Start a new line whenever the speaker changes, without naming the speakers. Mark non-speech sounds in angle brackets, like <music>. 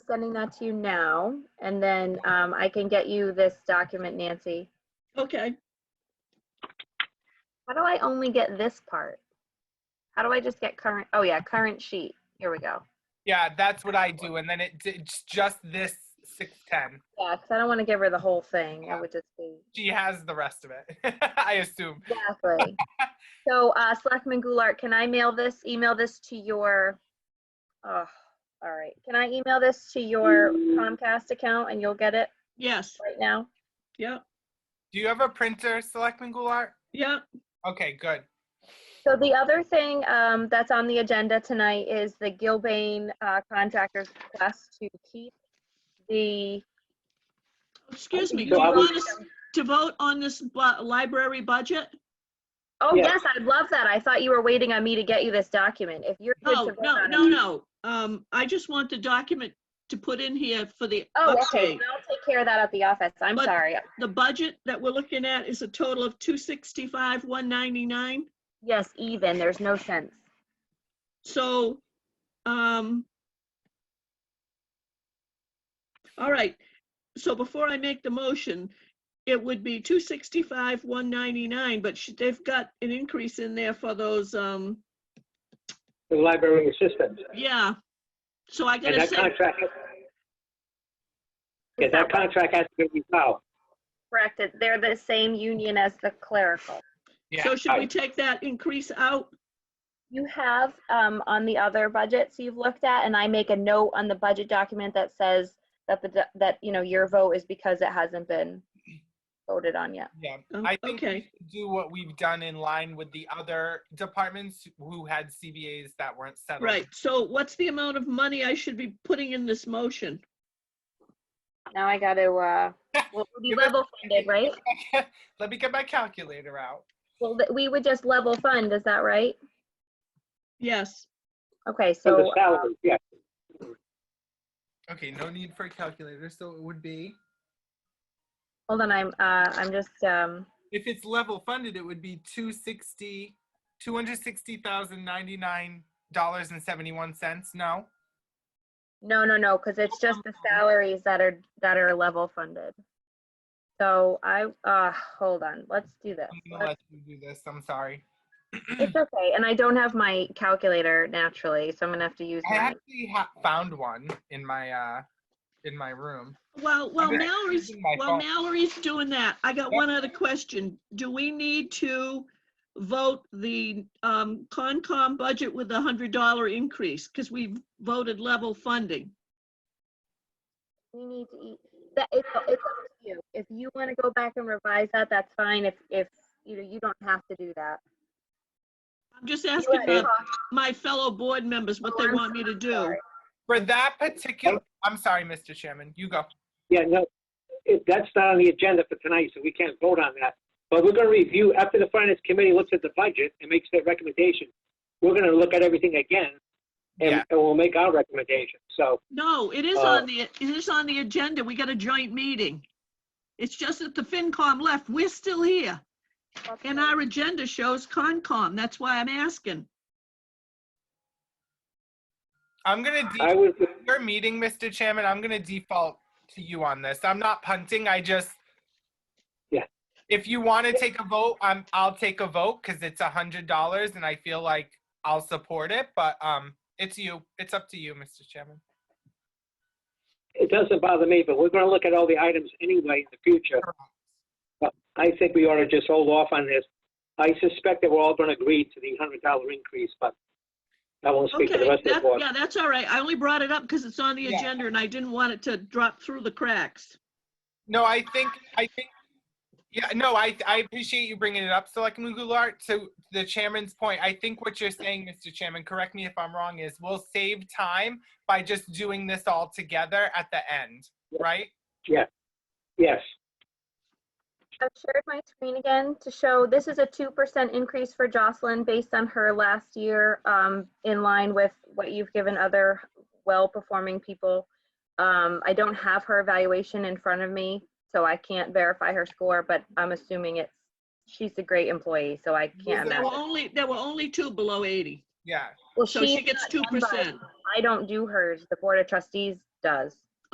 sending that to you now, and then um, I can get you this document, Nancy.
Okay,
How do I only get this part? How do I just get current? Oh yeah, current sheet. Here we go.
Yeah, that's what I do, and then it, it's just this six ten.
Yeah, because I don't want to give her the whole thing. I would just be.
She has the rest of it, <laughs> I assume.
Exactly. So, uh, Selectman Goulart, can I mail this, email this to your, oh, all right. Can I email this to your Comcast account and you'll get it
yes,
right now?
yep,
Do you have a printer, Selectman Goulart?
yep,
Okay, good.
So the other thing, um, that's on the agenda tonight is the Gilbane, uh, contractor's request to keep the,
excuse me, do
So
you
I was-
want us to vote on this bu- library budget?
oh,
Yeah.
yes, I'd love that. I thought you were waiting on me to get you this document. If you're good to
No,
vote
Oh, no,
on it-
no, no, um, I just want the document to put in here for the
Oh, okay.
update.
Then I'll take care of that at the office. I'm
But-
sorry.
The budget that we're looking at is a total of two sixty-five, one ninety-nine,
Yes, even, there's no sense.
so, um. All right, so before I make the motion, it would be two sixty-five, one ninety-nine, but sh- they've got an increase in there for those, um,
the library assistant.
Yeah. So I
And
gotta
that
say,
contract, yeah, that contract has to be filed.
Correct, it- they're the same union as the clerical.
Yeah.
so should we take that increase out?
You have, um, on the other budgets you've looked at, and I make a note on the budget document that says that the, do- that, you know, your vote is because it hasn't been voted on yet.
Yeah,
Oh,
I think we
okay.
should do what we've done in line with the other departments who had CBAs that weren't settled.
Right, so what's the amount of money I should be putting in this motion?
Now I gotta, uh, well, we'll be
Give us-
level funded, right?
Let me get my calculator out.
Well, th- we would just level fund, is that right?
Yes,
Okay,
So the
so, uh,
salary, yeah.
Okay, no need for a calculator, so it would be,
hold on, I'm, uh, I'm just, um,
if it's level funded, it would be two sixty, two hundred sixty thousand ninety-nine dollars and seventy-one cents, no?
No, no, no, because it's just the salaries that are, that are level funded. So I, uh, hold on, let's do this.
I'm gonna
Let's-
let you do this, I'm sorry.
It's okay, and I don't have my calculator naturally, so I'm gonna have to use
I
mine.
actually ha- found one in my, uh, in my room.
well, well,
Okay.
Mallory's,
Using my
well,
phone.
Mallory's doing that. I got one other question. Do we need to vote the um Concom budget with the hundred dollar increase? Because we voted level funding.
We need to eat, that, it's, it's up to you. If you wanna go back and revise that, that's fine, if, if, you know, you don't have to do that.
I'm just
You
asking
wanna
the-
talk-
my fellow board members what
Oh,
they
I'm
want me to do.
sorry.
For that particular, I'm sorry, Mr. Chairman, you go.
Yeah, no, it- that's not on the agenda for tonight, so we can't vote on that. But we're going to review, after the finance committee looks at the budget and makes their recommendation, we're going to look at everything again
Yeah.
and, and we'll make our recommendation. So,
No, it is
Uh,
on the, it is on the agenda. We got a joint meeting. It's just that the FinCom left. We're still here. And our agenda shows Concom. That's why I'm asking.
I'm gonna default
I would,
your meeting, Mr. Chairman. I'm gonna default to you on this. I'm not punting. I just
Yeah.
If you want to take a vote, I'm I'll take a vote because it's a hundred dollars, and I feel like I'll support it. But um, it's you. It's up to you, Mr. Chairman.
it doesn't bother me, but we're going to look at all the items anyway in the future. But I think we ought to just hold off on this. I suspect that we're all going to agree to the hundred dollar increase, but I won't speak to the
Okay,
rest of the
that,
board.
yeah, that's all right. I only brought it up because it's on the
Yeah.
agenda and I didn't want it to drop through the cracks.
No, I think I think. Yeah, no, I I appreciate you bringing it up, Selectman Goulart. To the chairman's point, I think what you're saying, Mr. Chairman, correct me if I'm wrong, is we'll save time by just doing this all together at the end, right?
Yes,
I've shared my screen again to show this is a two percent increase for Jocelyn based on her last year, um, in line with what you've given other well-performing people. Um, I don't have her evaluation in front of me, so I can't verify her score, but I'm assuming it's, she's a great employee, so I can't
There were
imagine.
only, there were only two below 80,
Yeah.
Well,
so she
she,
gets 2%.
I don't do hers, the Board of Trustees does.